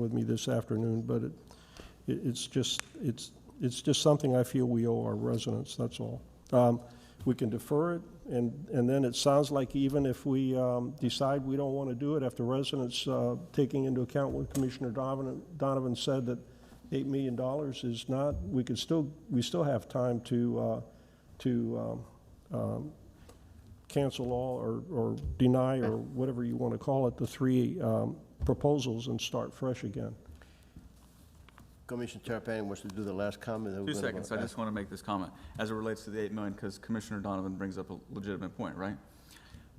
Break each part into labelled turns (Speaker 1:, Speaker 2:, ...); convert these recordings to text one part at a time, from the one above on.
Speaker 1: with me this afternoon, but it, it- it's just, it's, it's just something I feel we owe our residents, that's all. Um, We can defer it, and, and then it sounds like even if we um, decide we don't want to do it, after residents, uh, taking into account what Commissioner Donovan, Donovan said, that $8 million is not, we could still, we still have time to, uh, to um, um, cancel all or, or deny, or whatever you want to call it, the three um, proposals and start fresh again.
Speaker 2: Commissioner Terrapini wants to do the last comment. then we're
Speaker 3: Two
Speaker 2: gonna go
Speaker 3: seconds, I
Speaker 2: back.
Speaker 3: just want to make this comment, as it relates to the 8 million, because Commissioner Donovan brings up a legitimate point, right?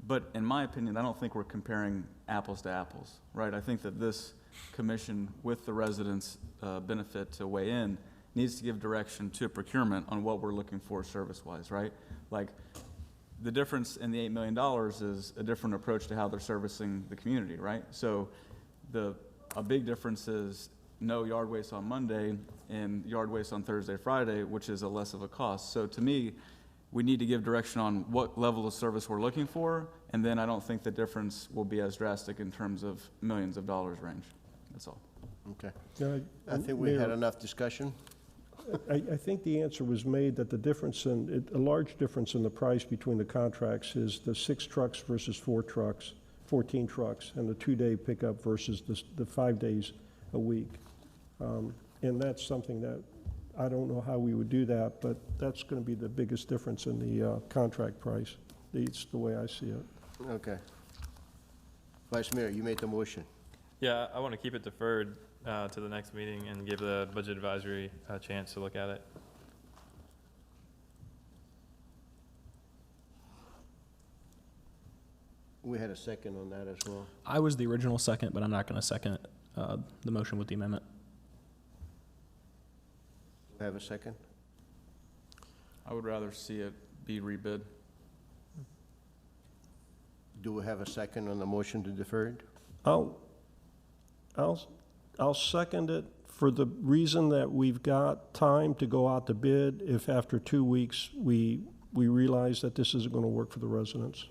Speaker 3: But in my opinion, I don't think we're comparing apples to apples, right? I think that this commission, with the residents' uh, benefit to weigh in, needs to give direction to procurement on what we're looking for service-wise, right? Like, the difference in the $8 million is a different approach to how they're servicing the community, right? So the, a big difference is no yard waste on Monday and yard waste on Thursday, Friday, which is a less of a cost. So to me, we need to give direction on what level of service we're looking for, and then I don't think the difference will be as drastic in terms of millions of dollars range. That's all.
Speaker 2: Okay.
Speaker 1: Yeah,
Speaker 2: I think we had
Speaker 1: Mayor,
Speaker 2: enough discussion.
Speaker 1: I, I think the answer was made that the difference in, it- a large difference in the price between the contracts is the six trucks versus four trucks, 14 trucks, and the two-day pickup versus the, s- the five days a week. Um, And that's something that, I don't know how we would do that, but that's going to be the biggest difference in the uh, contract price. It's the way I see it.
Speaker 2: Okay. Vice Mayor, you made the motion.
Speaker 4: Yeah, I want to keep it deferred uh, to the next meeting and give the budget advisory a chance to look at it.
Speaker 2: We had a second on that as well.
Speaker 5: I was the original second, but I'm not going to second uh, the motion with the amendment.
Speaker 2: We Have a second?
Speaker 3: I would rather see it be rebid.
Speaker 2: Do we have a second on the motion to defer it?
Speaker 1: I'll, I'll, I'll second it for the reason that we've got time to go out to bid if after two weeks, we, we realize that this isn't going to work for the residents,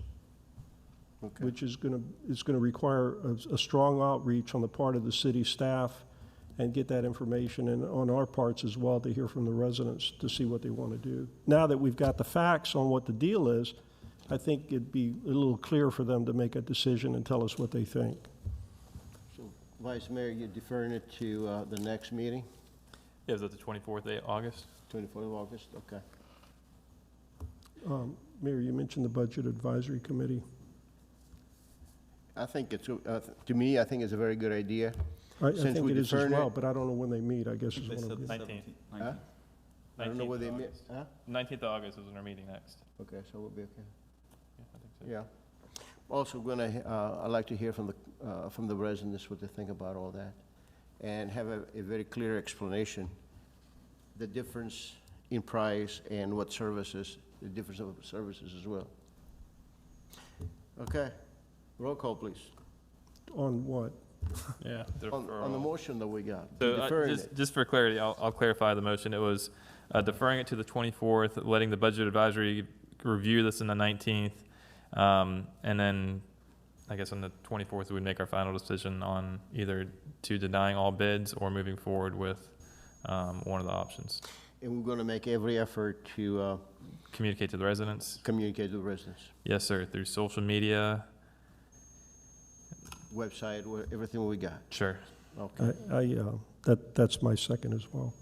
Speaker 2: Okay.
Speaker 1: which is going to, it's going to require a, a strong outreach on the part of the city staff and get that information, and on our parts as well, to hear from the residents to see what they want to do. Now that we've got the facts on what the deal is, I think it'd be a little clearer for them to make a decision and tell us what they think.
Speaker 2: Vice Mayor, you're deferring it to uh, the next meeting,
Speaker 4: Yeah, is that the 24th day, August?
Speaker 2: 24th of August? Okay.
Speaker 1: Um, Mayor, you mentioned the Budget Advisory Committee.
Speaker 2: I think it's, uh, to me, I think it's a very good idea.
Speaker 1: I I
Speaker 2: Since
Speaker 1: think
Speaker 2: we
Speaker 1: it is as
Speaker 2: deferred it-
Speaker 1: well, but I don't know when they meet, I guess is what I'm getting.
Speaker 4: 19th.
Speaker 2: Huh? I don't know
Speaker 4: 19th
Speaker 2: where they
Speaker 4: of
Speaker 2: met.
Speaker 4: August.
Speaker 2: Huh?
Speaker 4: 19th of August is when our meeting next.
Speaker 2: Okay, so we'll be okay.
Speaker 4: Yeah, I think so.
Speaker 2: Yeah. Also, gonna, uh, I'd like to hear from the, uh, from the residents what they think about all that, and have a, a very clear explanation, the difference in price and what services, the difference of services as well. Okay, roll call, please.
Speaker 1: On what?
Speaker 5: Yeah.
Speaker 2: On, on the
Speaker 4: Deferral.
Speaker 2: motion that we got,
Speaker 4: uh, So uh,
Speaker 2: deferring
Speaker 4: just,
Speaker 2: it.
Speaker 4: just for clarity, I'll, I'll clarify the motion. It was uh, deferring it to the 24th, letting the budget advisory review this on the 19th. um, And then, I guess on the 24th, we'd make our final decision on either to denying all bids or moving forward with um, one of the options.
Speaker 2: And we're gonna make every effort to, uh,
Speaker 4: Communicate to the residents.
Speaker 2: communicate to the residents.
Speaker 4: Yes, sir, through social media.
Speaker 2: Website, where- everything we got,
Speaker 4: Sure.
Speaker 2: okay,
Speaker 1: I, I, uh, that, that's my second as well,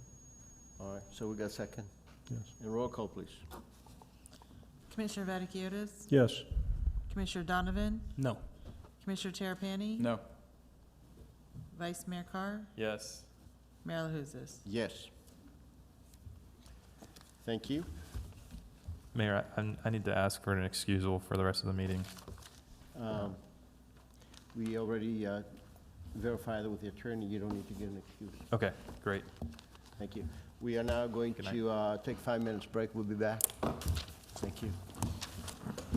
Speaker 2: all right, so we got second.
Speaker 1: yes.
Speaker 2: And roll call, please.
Speaker 6: Commissioner Vaticiotis?
Speaker 1: Yes,
Speaker 6: Commissioner Donovan?
Speaker 5: No.
Speaker 6: Commissioner Terrapini?
Speaker 3: No.
Speaker 6: Vice Mayor Carr?
Speaker 4: Yes.
Speaker 6: Mayor LaHousas?
Speaker 2: Yes. Thank you.
Speaker 4: Mayor, I, I'm- I need to ask for an excusal for the rest of the meeting.
Speaker 2: Um, We already uh, verified with the attorney, you don't need to give an excuse.
Speaker 4: Okay, great.
Speaker 2: Thank you. We are now going
Speaker 4: Good night.
Speaker 2: to uh, take five minutes break, we'll be back. Thank you.